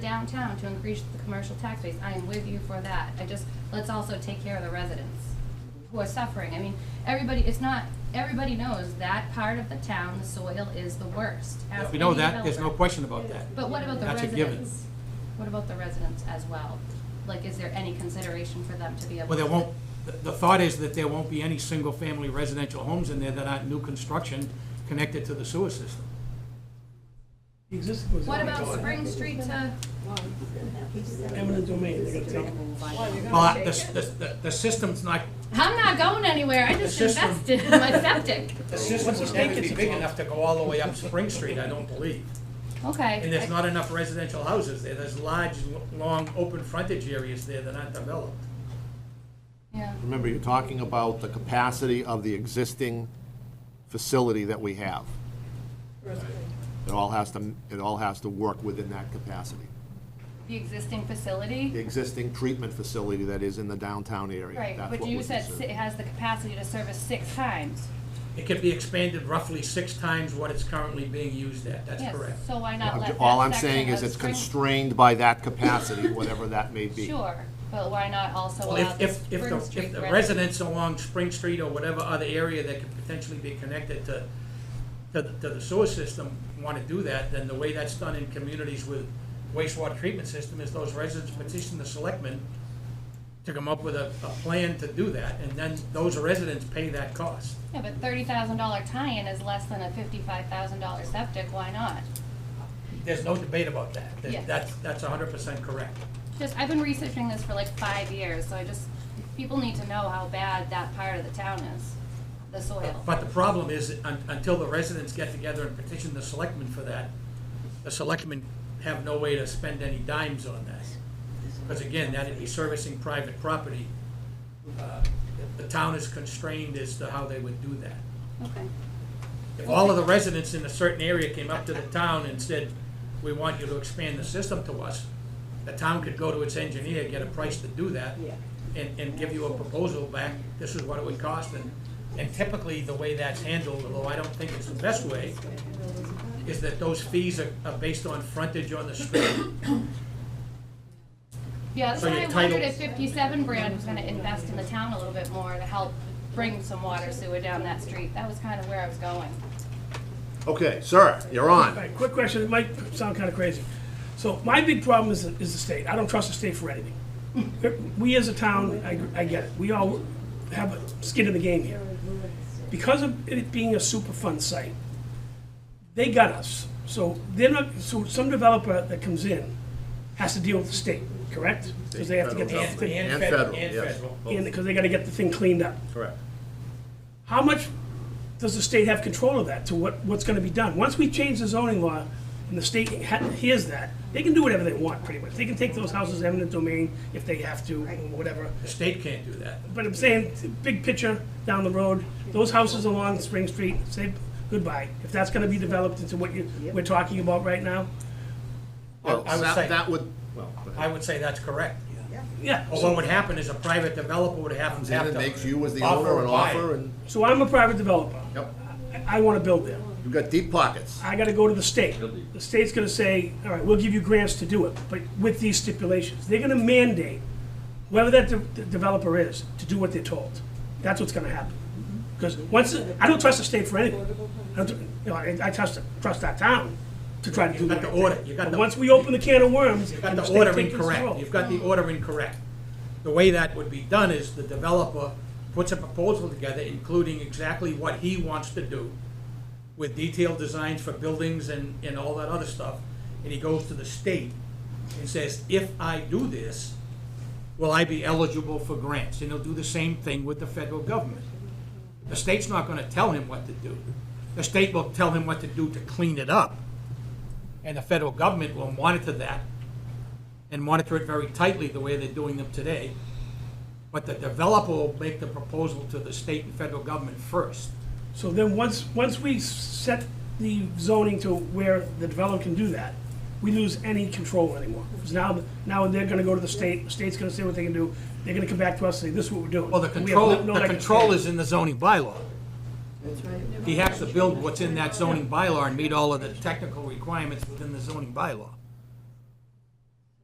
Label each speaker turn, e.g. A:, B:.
A: downtown to increase the commercial tax base. I am with you for that. I just, let's also take care of the residents who are suffering. I mean, everybody, it's not, everybody knows that part of the town, the soil is the worst. Ask
B: We know
A: any
B: that, there's no
A: developer.
B: question about that.
A: But what about the
B: That's a
A: residents?
B: given.
A: What about the residents as well? Like, is there any consideration for them to be able?
B: Well, there
A: to-
B: won't, the- the thought is that there won't be any single-family residential homes in there that aren't new construction connected to the sewer system.
C: The Existing was.
A: What about Spring Street to?
C: Eminent domain, they're gonna take.
B: Well, the, the, the system's not,
A: I'm not going anywhere. I just
B: The system-
A: invested in my septic.
B: the system would never be big enough to go all the way up Spring Street, I don't believe.
A: Okay.
B: And there's not enough residential houses there, there's large, lo- long, open frontage areas there that aren't developed.
A: Yeah.
D: Remember, you're talking about the capacity of the existing facility that we have. It all has to, it all has to work within that capacity.
A: The existing
D: The
A: facility?
D: existing treatment facility that is in the downtown area.
A: Right,
D: that's
A: but
D: what
A: you
D: we're
A: said si-
D: considering.
A: it has the capacity to service six times.
B: It could be expanded roughly six times what it's currently being used at, that's
A: Yes,
B: correct.
A: so why not
D: I'm
A: let
D: ju-
A: that
D: All I'm
A: section
D: saying is
A: of
D: it's
A: Spring-
D: constrained by that capacity, whatever that may be.
A: Sure, but why not also
B: Well,
A: allow
B: if,
A: the
B: if, if
A: uh, Spring
B: the, if
A: Street
B: the
A: residents?
B: residents along Spring Street or whatever other area that could potentially be connected to, to, the- to the sewer system want to do that, then the way that's done in communities with wastewater treatment system is those residents petition the selectmen to come up with a, a plan to do that, and then those residents pay that cost.
A: Yeah, but thirty thousand dollar tie-in is less than a fifty-five thousand dollar septic, why not?
B: There's no debate about that. That-
A: Yes.
B: That's, that's hundred percent correct.
A: Just, I've been researching this for like five years, so I just, people need to know how bad that part of the town is, the soil.
B: But the problem is, un- until the residents get together and petition the selectmen for that, the selectmen have no way to spend any dimes on that. Because again, that'd be servicing private property. Uh, The town is constrained as to how they would do that.
A: Okay.
B: If all of the residents in a certain area came up to the town and said, we want you to expand the system to us, the town could go to its engineer, get a price to do that, and, and give you a proposal back, this is what it would cost, and, and typically, the way that's handled, although I don't think it's the best way, is that those fees are, are based on frontage on the street.
A: Yeah, that's
B: So
A: why
B: your
A: I wondered
B: title-
A: if fifty-seven brand was gonna invest in the town a little bit more to help bring some water sewer down that street. That was kind of where I was going.
D: Okay, sir, you're on.
C: All right, quick question, it might sound kind of crazy. So my big problem is, is the state, I don't trust the state for anything. We as a town, I, I get it, we all have a skin in the game here. Because of it being a superfund site, they got us. So they're not, so some developer that comes in has to deal with the state, correct? Because they have to get the
D: Federal
C: thing,
D: And federal, yes.
C: and, because they gotta get the thing cleaned up.
D: Correct.
C: How much does the state have control of that, to what, what's gonna be done? Once we change the zoning law, and the state ha- hears that, they can do whatever they want, pretty much. They can take those houses eminent domain if they have to, or whatever.
B: The state can't do that.
C: But I'm saying, big picture, down the road, those houses along Spring Street, say goodbye. If that's gonna be developed into what you, we're talking about right now,
D: Well,
B: I would
D: that,
B: say-
D: that would, well, go ahead.
B: I would say that's correct.
C: yeah.
B: But what would happen is a private developer would have, have
D: Comes
B: to.
D: in and makes you as the
B: offer
D: owner
B: a
D: an
B: buy.
D: offer and,
C: So I'm a private developer.
D: yep,
C: I- I wanna build there.
D: you've got deep pockets.
C: I gotta go to the state. The state's gonna say, all right, we'll give you grants to do it, but with these stipulations. They're gonna mandate whoever that de- the developer is to do what they're told. That's what's gonna happen. Because once, I don't trust the state for anything. I don't, you know, I I trust, trust our town to try to do
B: got
C: the right
B: the
C: thing.
B: order. You got
C: But
B: the-
C: once we open the can of worms,
B: You've got
C: and the
B: the
C: state
B: order
C: takes
B: incorrect,
C: control.
B: you've got the order incorrect. The way that would be done is the developer puts a proposal together, including exactly what he wants to do, with detailed designs for buildings and, and all that other stuff, and he goes to the state and says, if I do this, will I be eligible for grants? And he'll do the same thing with the federal government. The state's not gonna tell him what to do. The state will tell him what to do to clean it up, and the federal government will monitor that and monitor it very tightly the way they're doing them today. But the developer will make the proposal to the state and federal government first.
C: So then, once, once we set the zoning to where the developer can do that, we lose any control anymore. Because now, now they're gonna go to the state, the state's gonna say what they can do, they're gonna come back to us and say, this is what we're doing.
B: Well, the
C: And we have no-
B: control,
C: no
B: the
C: leg to
B: control
C: stand.
B: is in the zoning bylaw. He has to build what's in that zoning bylaw and meet all of the technical requirements within the zoning bylaw.